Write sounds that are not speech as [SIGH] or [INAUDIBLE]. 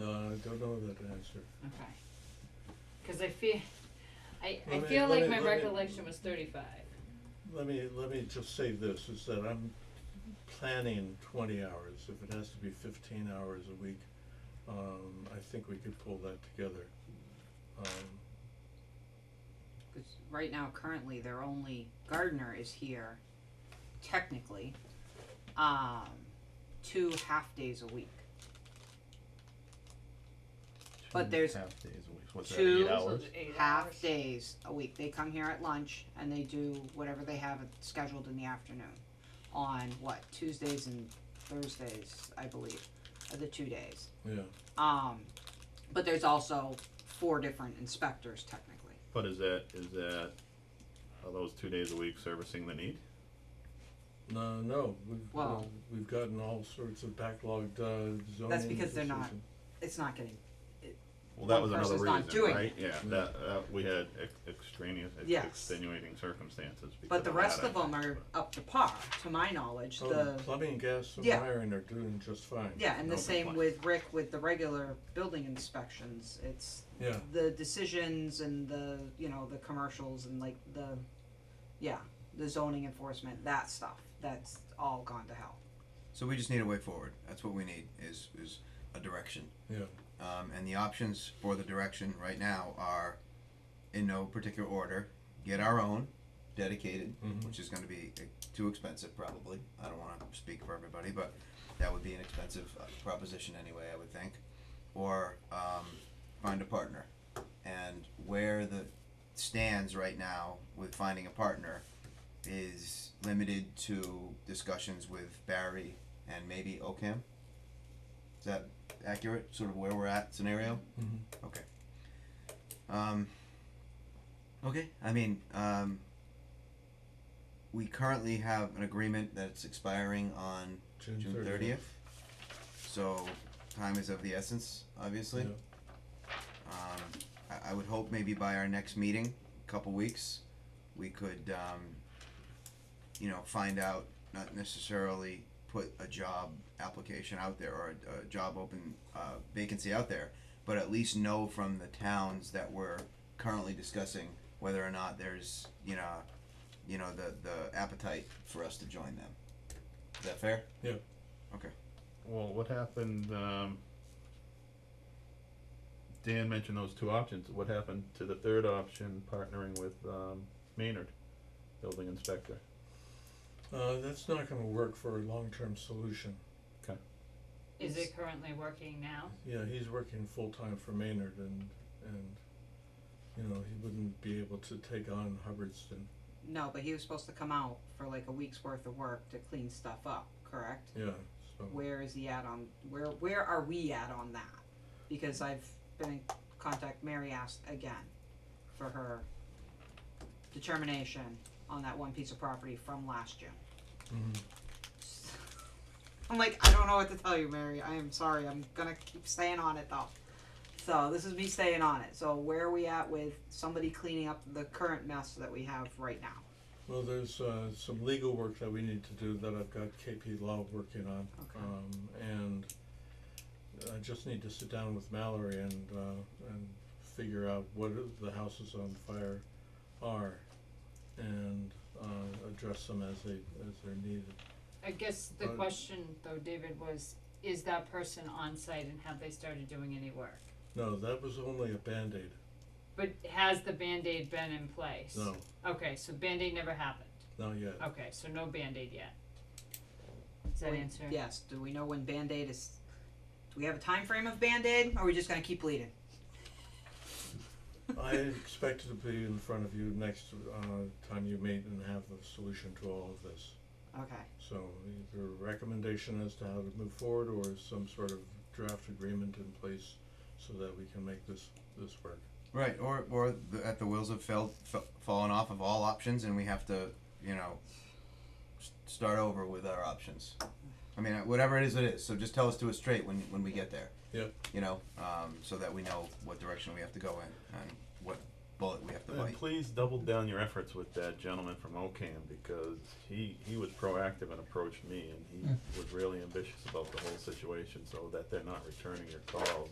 don't know that answer. Okay. Cause I feel, I, I Let me- feel let like me- my let me- recollection was thirty-five. Let me, let me just say this, is that I'm planning twenty hours, if it has to be fifteen hours a week, um, I think we could pull that together. Um, 'Cause right now, currently, their only gardener is here, technically, um, two half-days a week. But Two there's half days a week. What's two- that? Eight hours. half days a week. They come here at lunch and they do whatever they have scheduled in the afternoon on what Tuesdays and Thursdays, I believe, are the two days. Yeah, Um, but there's also four different inspectors technically. But is that is that are those two days a week servicing the need? no, no, we've, uh, Well- we've gotten all sorts of backlogged, uh, zoning. because they're not- decisions. It's not getting Well, that One was another person's reason, not doing right? Yeah, Mm. that, that we had ex- extraneous, ex- Yes. extenuating circumstances. because but the that, rest I of them think, are up to par to my knowledge. Oh, the Plumbing, gas and Yeah. wiring are doing just fine. yeah, and the no same complaints. with Rick with the regular building inspections. It's Yeah, the decisions and the you know the commercials and like the yeah the zoning enforcement that stuff that's all gone to hell So we just need a way forward. That's what we need is is a direction. yeah, Um, and the options for the direction right now are, in no particular order, get our own, dedicated, Mhm. which is going to be eh, too expensive probably. I don't want to speak for everybody, but that would be an expensive uh, proposition anyway. I would think, or um, find a partner. And where the stands right now with finding a partner is limited to discussions with Barry and maybe OCAM. Is that accurate? Sort of where we're at scenario. mhm. Okay. Um, okay, I mean, um, we currently have an agreement that's expiring on June June thirtieth. thirtieth. So time is of the essence, obviously. Yeah. Um, I, I would hope maybe by our next meeting, couple weeks, we could, um, you know, find out, not necessarily put a job application out there or a, a job open, uh, vacancy out there, but at least know from the towns that we're currently discussing whether or not there's, you know, you know, the, the appetite for us to join them. Is that fair? Well, what happened? Um, Dan mentioned those two options. What happened to the third option, partnering with um, Maynard, building inspector? Uh, that's not gonna work for a long-term solution. Is It's- it currently working now? Yeah, he's working full-time for Maynard and, and, you know, he wouldn't be able to take on Hubbardston, no but he was supposed to come out for like a week's worth of work to clean stuff up correct yeah, so. where is he at on where where are we at on that because i've been in contact mary asked again for her determination on that one piece of property from last june Mhm. [LAUGHS] I'm like, I don't know what to tell you, Mary. I am sorry. I'm gonna keep staying on it though. So this is me staying on it. So where are we at with somebody cleaning up the current mess that we have right now? Well, there's, uh, some legal work that we need to do that I've got KP Law working on. Okay. Um, and I just need to sit down with Mallory and, uh, and figure out what i- the houses on fire are and, uh, address them as they, as they're needed. I guess the Uh, question though, David, was, is that person on site and have they started doing any work? No, that was only a Band-Aid, But has the Band-Aid been in place? no, Okay, so Band-Aid never happened. not yet. Okay, so no Band-Aid yet. Does that We- answer? Yes. Do we know when Band Aid is? Do we have a time frame of Band Aid? Or are we just gonna keep bleeding? I expect it to be in front of you next uh, time you meet and have the solution to all of this. Okay. So either a recommendation as to how to move forward or some sort of draft agreement in place so that we can make this, this work. Right, or or the, at the wheels have failed, f- fallen off of all options, and we have to, you know, s- start over with our options. I mean, whatever it is, it is. So just tell us to it straight when when we get there. Yep. You know, um, so that we know what direction we have to go in and what bullet we have to And bite. please double down your efforts with that gentleman from OCAM because he, he was proactive and approached me and he was really ambitious about the whole situation so that they're not returning your calls